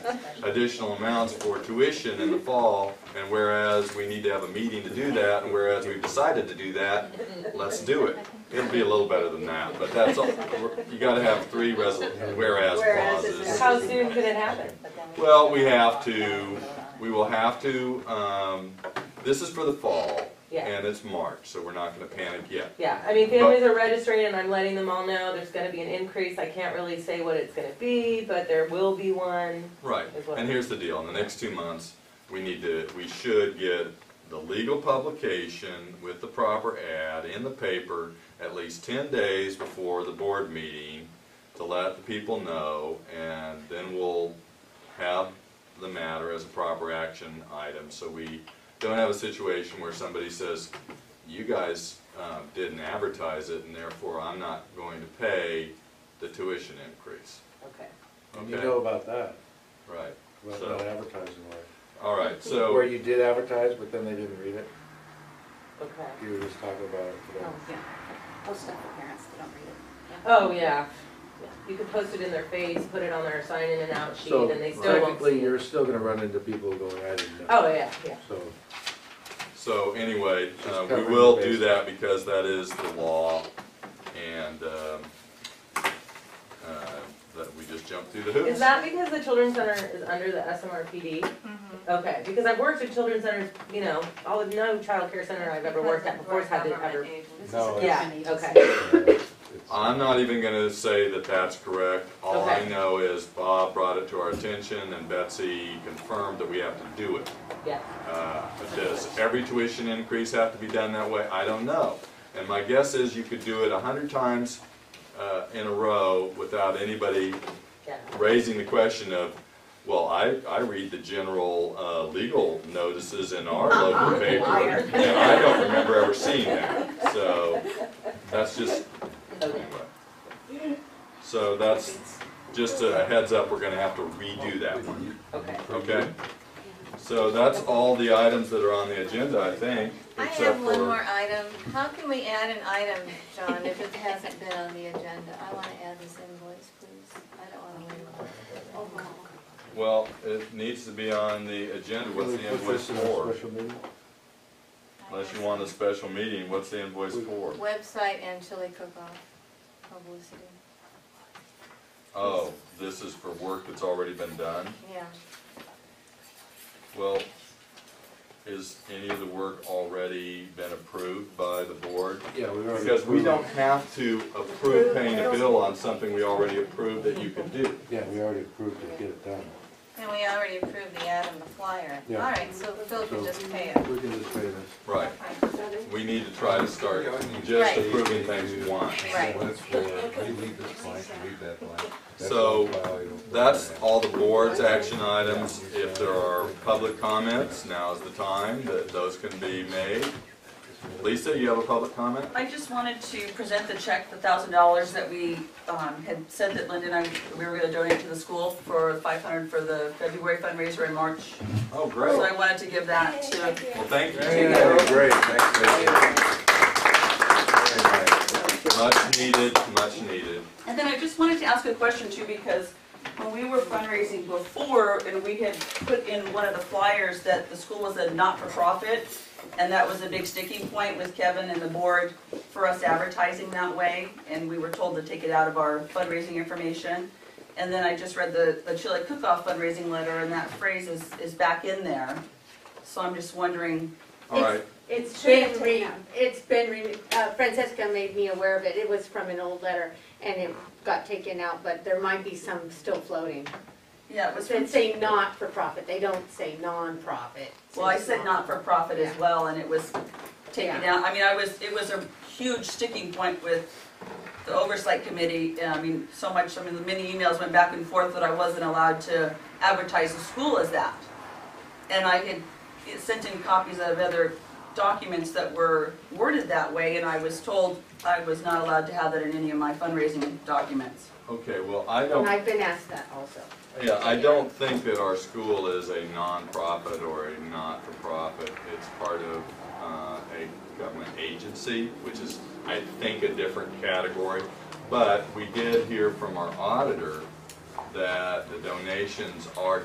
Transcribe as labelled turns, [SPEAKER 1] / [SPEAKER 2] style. [SPEAKER 1] additional amounts for tuition in the fall, and whereas we need to have a meeting to do that, and whereas we've decided to do that, let's do it. It'll be a little better than that, but that's, all you gotta have three resol, whereas
[SPEAKER 2] Whereas is
[SPEAKER 1] clauses.
[SPEAKER 2] How soon could it happen?
[SPEAKER 1] Well, we have to, we will have to, um, this is for the fall,
[SPEAKER 2] Yeah.
[SPEAKER 1] and it's March, so we're not gonna panic yet.
[SPEAKER 2] Yeah, I mean, families are registering and I'm letting them all know there's gonna be an increase. I can't really say what it's gonna be, but there will be one.
[SPEAKER 1] Right,
[SPEAKER 2] Is what-
[SPEAKER 1] and here's the deal, in the next two months, we need to, we should get the legal publication with the proper ad in the paper at least ten days before the board meeting to let the people know, and then we'll have the matter as a proper action item, so we don't have a situation where somebody says, you guys, uh, didn't advertise it, and therefore I'm not going to pay the tuition increase,
[SPEAKER 2] Okay.
[SPEAKER 3] And you
[SPEAKER 1] Okay.
[SPEAKER 3] know about that,
[SPEAKER 1] right?
[SPEAKER 3] about
[SPEAKER 1] So-
[SPEAKER 3] that advertising way.
[SPEAKER 1] All right, so.
[SPEAKER 3] Where you did advertise, but then they didn't read it,
[SPEAKER 2] Okay.
[SPEAKER 3] you were just talking about it today.
[SPEAKER 4] Oh, yeah. Oh, stuff for parents that don't read it. Yeah.
[SPEAKER 2] Oh, yeah. You could post it in their face, put it on their sign in and out sheet
[SPEAKER 3] So
[SPEAKER 2] and they still won't
[SPEAKER 3] technically,
[SPEAKER 2] see it.
[SPEAKER 3] you're still gonna run into people going, I didn't know,
[SPEAKER 2] Oh, yeah, yeah.
[SPEAKER 3] so.
[SPEAKER 1] So anyway,
[SPEAKER 3] Just
[SPEAKER 1] uh, we
[SPEAKER 3] covering
[SPEAKER 1] will
[SPEAKER 3] the
[SPEAKER 1] do
[SPEAKER 3] bases.
[SPEAKER 1] that because that is the law and, um, uh, that we just jumped through the hoops.
[SPEAKER 2] Is that because the children's center is under the SMRPD? Okay, because I've worked with children's centers, you know, all of, no childcare center I've ever worked at before has had to ever.
[SPEAKER 4] This is
[SPEAKER 3] No,
[SPEAKER 4] a
[SPEAKER 3] it's-
[SPEAKER 2] Yeah,
[SPEAKER 4] different agency.
[SPEAKER 2] okay,
[SPEAKER 3] uh,
[SPEAKER 5] Um,
[SPEAKER 1] I'm not even gonna say that that's correct. All I
[SPEAKER 2] Okay.
[SPEAKER 1] know is Bob brought it to our attention and Betsy confirmed that we have to do it.
[SPEAKER 2] yeah.
[SPEAKER 1] Uh, Does every tuition increase have to be done that way? I don't know. And my guess is you could do it a hundred times uh, in a row without anybody
[SPEAKER 2] Yeah.
[SPEAKER 1] raising the question of, well, I, I read the general uh, legal notices in our
[SPEAKER 6] Uh-huh.
[SPEAKER 1] local paper,
[SPEAKER 2] liar.
[SPEAKER 1] and I don't remember ever seeing that. So that's just, anyway. So that's just a heads up, we're gonna have to redo that one,
[SPEAKER 2] Okay.
[SPEAKER 1] okay? So that's all the items that are on the agenda, I think,
[SPEAKER 6] I
[SPEAKER 1] except
[SPEAKER 6] have one more
[SPEAKER 1] for,
[SPEAKER 6] item. How can we add an item, John, if it hasn't been on the agenda? I want to add this invoice, please. I don't want to leave it.
[SPEAKER 4] Oh, wow.
[SPEAKER 1] well, it needs to be on the agenda, what's the invoice for?
[SPEAKER 3] Special meeting?
[SPEAKER 1] Unless you want a special meeting, what's the invoice for?
[SPEAKER 6] Website and chili cook-off publicity.
[SPEAKER 1] Oh, this is for work that's already been done?
[SPEAKER 6] Yeah.
[SPEAKER 1] Well, is any of the work already been approved by the board?
[SPEAKER 3] Yeah, we already.
[SPEAKER 1] Because we
[SPEAKER 3] approved-
[SPEAKER 1] don't have to approve paying a bill on something we already approved that you can do.
[SPEAKER 3] Yeah, we already approved it, get it done.
[SPEAKER 6] And we already approved the ad on the flyer. All
[SPEAKER 3] Yeah.
[SPEAKER 6] right, so Phil can just pay it.
[SPEAKER 3] We can just pay this.
[SPEAKER 1] Right,
[SPEAKER 6] Fine.
[SPEAKER 1] we need to try to start just
[SPEAKER 6] Right.
[SPEAKER 1] approving things once.
[SPEAKER 6] Right.
[SPEAKER 5] Well, that's for, you leave this blank, you leave that blank. That's
[SPEAKER 1] So,
[SPEAKER 5] all file, you don't-
[SPEAKER 1] That's all the board's action items. If there are public comments, now's the time that those can be made. Lisa, you have a public comment?
[SPEAKER 7] I just wanted to present the check, the thousand dollars that we um, had said that Linda and I, we were gonna donate to the school for five hundred for the February fundraiser in March.
[SPEAKER 1] Oh, great.
[SPEAKER 7] So
[SPEAKER 1] Well,
[SPEAKER 7] I wanted to give that to,
[SPEAKER 1] thank you.
[SPEAKER 3] Yeah, great, thanks,
[SPEAKER 1] Much needed, much needed.
[SPEAKER 7] and then I just wanted to ask a question too, because when we were fundraising before, and we had put in one of the flyers that the school was a not-for-profit, and that was a big sticking point with Kevin and the board for us advertising that way, and we were told to take it out of our fundraising information. And then I just read the, the Chili Cook-Off fundraising letter, and that phrase is, is back in there. So I'm just wondering,
[SPEAKER 1] All right,
[SPEAKER 8] It's
[SPEAKER 4] Should have
[SPEAKER 8] been,
[SPEAKER 4] taken
[SPEAKER 8] re-
[SPEAKER 4] out.
[SPEAKER 8] it's been, re- uh, Francesca made me aware of it, it was from an old letter, and it got taken out, but there might be some still floating.
[SPEAKER 7] yeah, it was from
[SPEAKER 8] It say not for profit, they don't say non-profit.
[SPEAKER 7] Well, I said not for profit as well, and it was taken
[SPEAKER 8] Yeah.
[SPEAKER 7] out, I mean, I was, it was a huge sticking point with the oversight committee, and I mean, so much, I mean, the many emails went back and forth that I wasn't allowed to advertise the school as that. And I had sent in copies of other documents that were worded that way, and I was told I was not allowed to have that in any of my fundraising documents.
[SPEAKER 1] okay, well, I don't
[SPEAKER 8] And I've been asked that also.
[SPEAKER 1] Yeah, I don't think that our school is a nonprofit or a not-for-profit. It's part of uh, a government agency, which is, I think, a different category. But we did hear from our auditor that the donations are